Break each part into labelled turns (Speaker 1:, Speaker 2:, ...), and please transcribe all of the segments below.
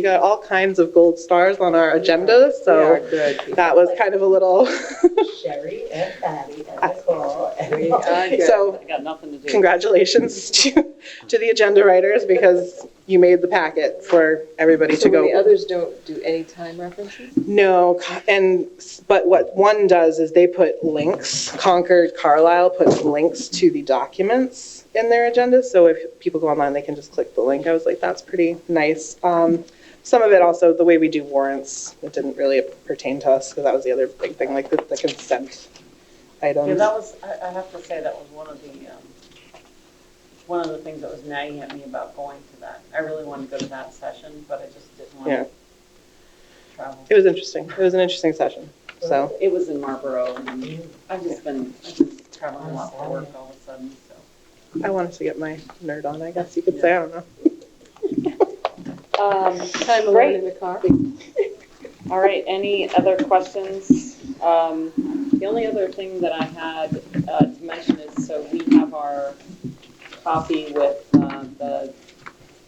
Speaker 1: We got all kinds of gold stars on our agenda, so that was kind of a little,
Speaker 2: Sherry and Patty and Nicole. and-
Speaker 1: so
Speaker 3: I got nothing to do.
Speaker 1: congratulations to, to the agenda writers because you made the packet for everybody to
Speaker 4: So when the
Speaker 1: go.
Speaker 4: others don't do any time references?
Speaker 1: No, and, but what one does is they put links, Concord Carlisle puts links to the documents in their agenda. So if people go online, they can just click the link. I was like, that's pretty nice. Um, Some of it also, the way we do warrants, it didn't really pertain to us because that was the other big thing, like the the consent
Speaker 3: Yeah,
Speaker 1: items.
Speaker 3: that was, I, I have to say, that was one of the, um, one of the things that was nagging at me about going to that. I really wanted to go to that session, but I just didn't want
Speaker 1: Yeah.
Speaker 3: to travel.
Speaker 1: It was interesting. It was an interesting session, so.
Speaker 3: It was in Marlboro, and I've just been, I've been traveling a lot for work all of a sudden, so.
Speaker 1: I wanted to get my nerd on, I guess you could say, I don't know.
Speaker 5: Um,
Speaker 4: Time alone in the car?
Speaker 5: all right, any other questions? Um, the only other thing that I had, uh, to mention is, so we have our copy with, uh, the,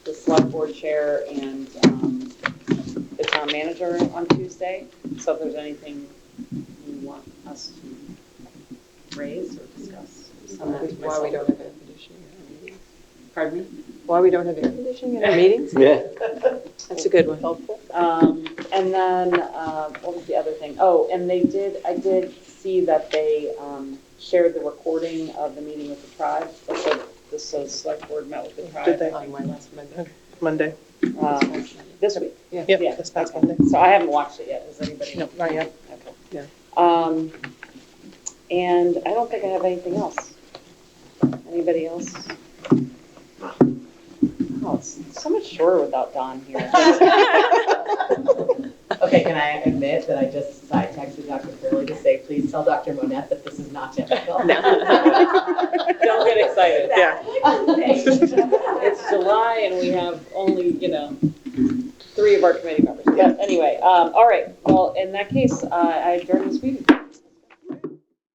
Speaker 5: the select board chair and, um, the town manager on Tuesday. So if there's anything you want us to raise or discuss, send that to
Speaker 4: Why we
Speaker 5: myself.
Speaker 4: don't have air conditioning in our meetings?
Speaker 5: Pardon me?
Speaker 4: Why we don't have air conditioning in our meetings?
Speaker 6: Yeah.
Speaker 4: That's a good one.
Speaker 5: helpful. Um, and then, um, what was the other thing? Oh, and they did, I did see that they, um, shared the recording of the meeting with the tribe. That's what the so select board met with the
Speaker 1: Did
Speaker 5: tribe.
Speaker 1: they,
Speaker 4: On my last Monday.
Speaker 1: Monday?
Speaker 5: um, This week.
Speaker 1: Yep,
Speaker 5: Yeah,
Speaker 1: this past
Speaker 5: okay.
Speaker 1: Monday.
Speaker 5: So I haven't watched it yet. Has anybody?
Speaker 1: Nope, not yet.
Speaker 5: Okay.
Speaker 4: Yeah.
Speaker 5: Um, and I don't think I have anything else. Anybody else? Oh, it's so much shorter without Don here.
Speaker 2: Okay, can I admit that I just side texted Dr. Curley to say, please tell Dr. Monette that this is not typical?
Speaker 5: Don't get excited.
Speaker 1: Yeah.
Speaker 5: It's July and we have only, you know, three of our committee members. But anyway, um, all right, well, in that case, uh, I adjourn this meeting.